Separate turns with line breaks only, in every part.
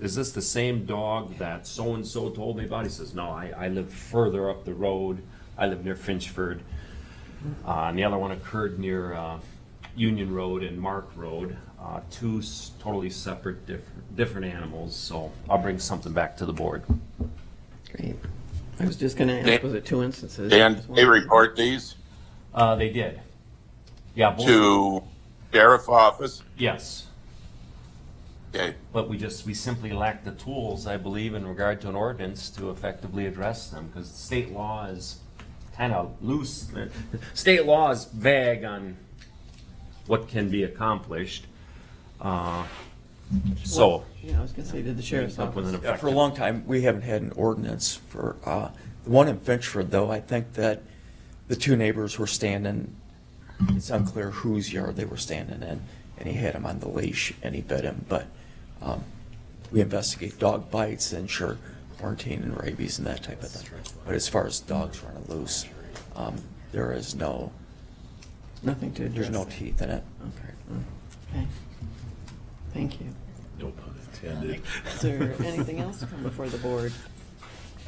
is this the same dog that so-and-so told me about? He says, no, I, I live further up the road. I live near Finchford. Uh, and the other one occurred near, uh, Union Road and Mark Road, uh, two s- totally separate, different, different animals, so I'll bring something back to the board.
Great. I was just gonna
They-
ask, was it two instances?
Dan, they report these
Uh, they did. Yeah, both,
to sheriff office?
yes,
Okay,
but we just, we simply lack the tools, I believe, in regard to an ordinance to effectively address them, because state law is kind of loose. State law is vague on what can be accomplished, uh, so.
Yeah, I was gonna say, did the sheriff's
up with an
office?
Yeah, for a
effective-
long time, we haven't had an ordinance for, uh, the one in Finchford, though, I think that the two neighbors were standing, it's unclear whose yard they were standing in, and he had him on the leash and he bit him, but, um, we investigate dog bites and sure, quarantine and rabies and that type of thing. But as far as dogs running loose, um, there is no,
Nothing to address.
there's no
that.
teeth in it.
Okay. Thank you.
No pun intended.
Is there anything else to come before the board?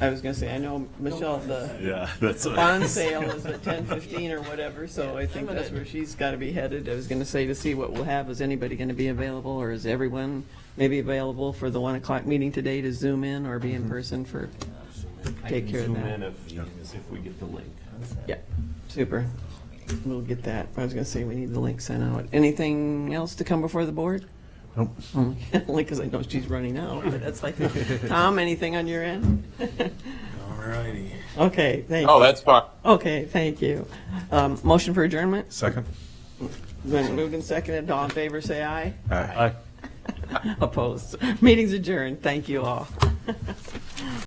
I was gonna say, I know, Michelle, the
Yeah, that's.
the
what I
bond
was-
sale is at ten fifteen or whatever, so I think that's where she's gotta be headed. I was gonna say, to see what we'll have, is anybody gonna be available, or is everyone maybe available for the one o'clock meeting today to zoom in or be
Mm-hmm.
in person for,
I
take
can
care of
zoom
that.
in If, if we get the link.
yeah, super. We'll get that. I was gonna say, we need the link sent out. Anything else to come before the board?
Nope.
Only because I know she's running out, but that's like, Tom, anything on your end?
Alrighty.
Okay, thank,
oh, that's fine.
okay, thank you. Um, Motion for adjournment?
Second?
Been moved and seconded. All in favor, say aye.
Aye.
Opposed? Meeting's adjourned. Thank you all.